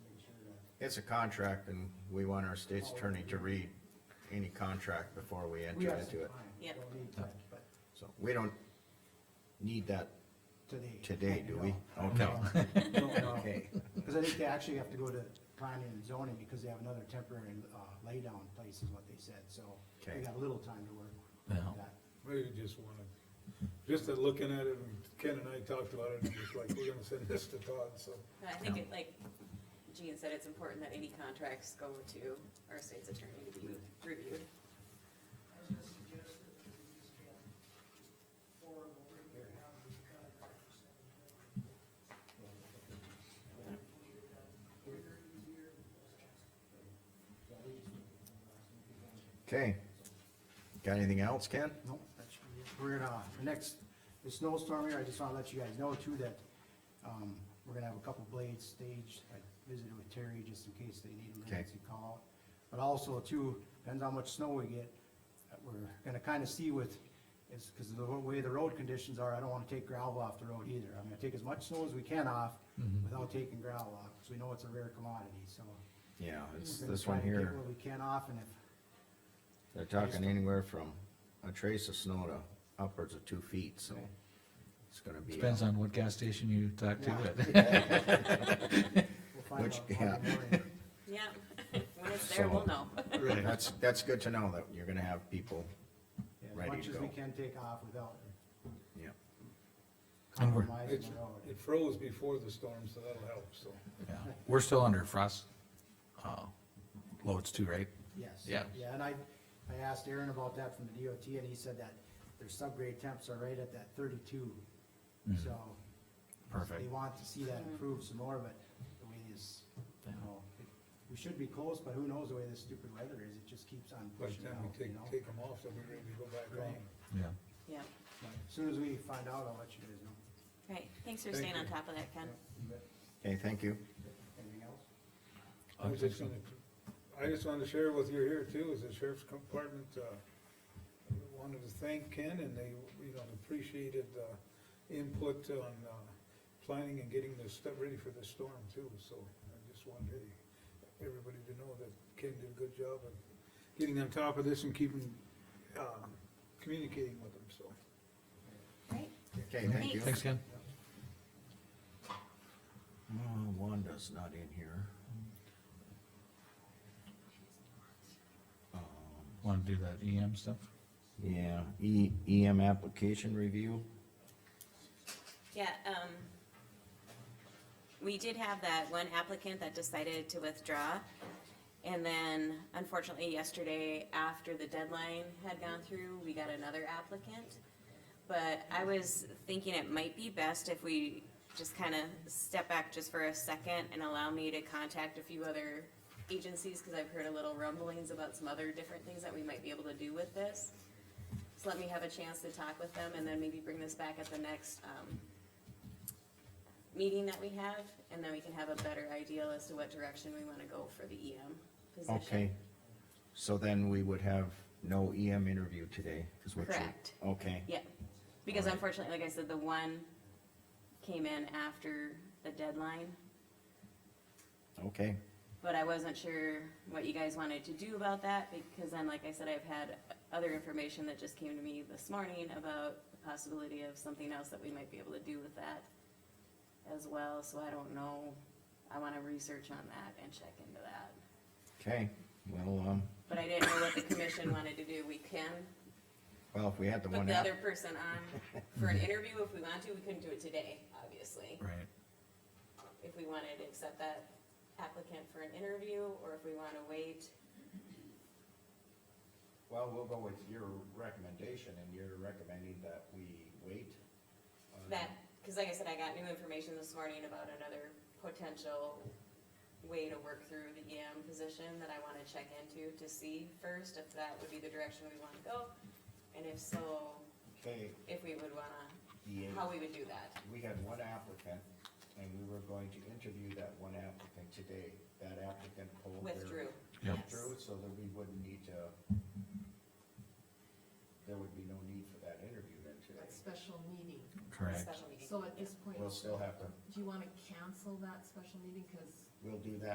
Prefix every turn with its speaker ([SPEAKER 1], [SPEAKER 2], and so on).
[SPEAKER 1] It's a contract and we want our state's attorney to read any contract before we
[SPEAKER 2] We
[SPEAKER 1] enter
[SPEAKER 2] have some
[SPEAKER 1] into
[SPEAKER 2] time,
[SPEAKER 1] it. Oh.
[SPEAKER 3] Yep.
[SPEAKER 2] don't need time, but
[SPEAKER 1] So we don't need that
[SPEAKER 2] today.
[SPEAKER 1] today, do we?
[SPEAKER 2] No.
[SPEAKER 1] Okay,
[SPEAKER 2] No, no.
[SPEAKER 1] okay.
[SPEAKER 2] Cause I think they actually have to go to planning and zoning because they have another temporary, uh, laydown place is what they said, so
[SPEAKER 1] Okay.
[SPEAKER 2] we got a little time to work
[SPEAKER 4] Yeah.
[SPEAKER 2] with that.
[SPEAKER 5] Maybe just wanna, just at looking at it, and Ken and I talked about it, and it's like, we're gonna send this to Todd, so.
[SPEAKER 3] I think it, like Jean said, it's important that any contracts go to our state's attorney to be reviewed.
[SPEAKER 1] Okay. Got anything else, Ken?
[SPEAKER 2] No, that's, we're gonna, uh, the next, the snowstorm here, I just wanna let you guys know too that, um, we're gonna have a couple blades staged, I visited with Terry just in case they need
[SPEAKER 1] Okay.
[SPEAKER 2] emergency call. out. But also too, depends how much snow we get, uh, we're gonna kinda see with, it's, cause of the way the road conditions are, I don't wanna take gravel off the road either. I'm gonna take as much snow as we can off
[SPEAKER 1] Mm-hmm.
[SPEAKER 2] without taking gravel off, cause we know it's a rare commodity, so.
[SPEAKER 1] Yeah, it's
[SPEAKER 2] we're gonna
[SPEAKER 1] this one
[SPEAKER 2] try to get
[SPEAKER 1] here.
[SPEAKER 2] What we can off and if
[SPEAKER 1] They're talking anywhere from a trace of snow to upwards of two feet, so it's gonna be.
[SPEAKER 4] Depends on what gas station you talk to, but
[SPEAKER 2] We'll find
[SPEAKER 1] Which-
[SPEAKER 2] out Monday
[SPEAKER 1] yeah.
[SPEAKER 2] morning.
[SPEAKER 3] Yeah, when it's there, we'll
[SPEAKER 1] So-
[SPEAKER 3] know.
[SPEAKER 1] uh, That's, that's good to know that you're gonna have people,
[SPEAKER 2] Yeah,
[SPEAKER 1] Ready
[SPEAKER 2] As much
[SPEAKER 1] to
[SPEAKER 2] as we
[SPEAKER 1] go.
[SPEAKER 2] can take off without
[SPEAKER 1] yeah.
[SPEAKER 4] And we're-
[SPEAKER 2] compromising
[SPEAKER 5] It's,
[SPEAKER 2] the road.
[SPEAKER 5] it froze before the storm, so that'll help, so.
[SPEAKER 4] yeah, we're still under frost, uh, loads too, right?
[SPEAKER 2] Yes.
[SPEAKER 4] Yeah.
[SPEAKER 2] Yeah, and I, I asked Aaron about that from the DOT and he said that their subgrade temps are right at that thirty-two. So.
[SPEAKER 4] Mm-hmm. Perfect.
[SPEAKER 2] They want to see that improve some more, but the way is, you know, it- we should be close, but who knows the way this stupid weather is, it just keeps on
[SPEAKER 5] By the
[SPEAKER 2] pushing
[SPEAKER 5] time
[SPEAKER 2] out,
[SPEAKER 5] we
[SPEAKER 2] you
[SPEAKER 5] take,
[SPEAKER 2] know?
[SPEAKER 5] take them off, they'll be ready to go back on.
[SPEAKER 2] Right.
[SPEAKER 4] Yeah.
[SPEAKER 3] Yeah,
[SPEAKER 2] But As soon as we find out, I'll let you guys know.
[SPEAKER 3] right, thanks for
[SPEAKER 5] Thank
[SPEAKER 3] staying on
[SPEAKER 5] you.
[SPEAKER 3] top of that, Ken.
[SPEAKER 1] Okay, thank you.
[SPEAKER 2] Anything else?
[SPEAKER 5] I was just gonna, I just wanted to share with you here too, is the sheriff's department, uh, wanted to thank Ken and they, you know, appreciated, uh, input on, uh, planning and getting this stuff ready for the storm too, so I just wanted everybody to know that Ken did a good job of getting on top of this and keeping, uh, communicating with them, so.
[SPEAKER 3] Right,
[SPEAKER 1] Okay, thank you.
[SPEAKER 3] Thanks.
[SPEAKER 4] Thanks, Ken.
[SPEAKER 1] Uh, Wanda's not in here.
[SPEAKER 4] Wanna do that EM stuff?
[SPEAKER 1] Um, Yeah, E, EM application review,
[SPEAKER 3] yeah, um, we did have that one applicant that decided to withdraw. And then unfortunately yesterday, after the deadline had gone through, we got another applicant. But I was thinking it might be best if we just kind of step back just for a second and allow me to contact a few other agencies, because I've heard a little rumblings about some other different things that we might be able to do with this. So let me have a chance to talk with them and then maybe bring this back at the next, um, meeting that we have, and then we can have a better idea as to what direction we want to go for the EM position.
[SPEAKER 1] okay. So then we would have no EM interview today, is what you.
[SPEAKER 3] Correct.
[SPEAKER 1] Okay,
[SPEAKER 3] Yeah, because
[SPEAKER 1] Alright.
[SPEAKER 3] unfortunately, like I said, the one came in after the deadline,
[SPEAKER 1] okay,
[SPEAKER 3] but I wasn't sure what you guys wanted to do about that, because then, like I said, I've had other information that just came to me this morning about the possibility of something else that we might be able to do with that as well, so I don't know, I want to research on that and check into that.
[SPEAKER 1] okay. Well, um,
[SPEAKER 3] But I didn't know what the commission wanted to do, we can
[SPEAKER 1] well, if we had the
[SPEAKER 3] put
[SPEAKER 1] one,
[SPEAKER 3] the
[SPEAKER 1] app-
[SPEAKER 3] other person on for an interview if we want to, we couldn't do it today, obviously.
[SPEAKER 4] Right.
[SPEAKER 3] If we wanted to accept that applicant for an interview, or if we wanna wait,
[SPEAKER 1] well, we'll go with your recommendation, and you're recommending that we wait? on-
[SPEAKER 3] that, cause like I said, I got new information this morning about another potential way to work through the EM position that I wanna check into to see first if that would be the direction we wanna go, and if so,
[SPEAKER 1] Okay,
[SPEAKER 3] if we would wanna,
[SPEAKER 1] the
[SPEAKER 3] how we would do that.
[SPEAKER 1] we had one applicant, and we were going to interview that one applicant today. That applicant pulled their.
[SPEAKER 3] Withdrew.
[SPEAKER 4] Yep.
[SPEAKER 3] Yes.
[SPEAKER 1] Withdrew, so that we wouldn't need to, there would be no need for that interview then today.
[SPEAKER 6] that special meeting.
[SPEAKER 4] Correct.
[SPEAKER 3] Special meeting.
[SPEAKER 6] So at this point,
[SPEAKER 1] We'll
[SPEAKER 6] do
[SPEAKER 1] still have to,
[SPEAKER 6] you wanna cancel that special meeting, cause
[SPEAKER 1] we'll do that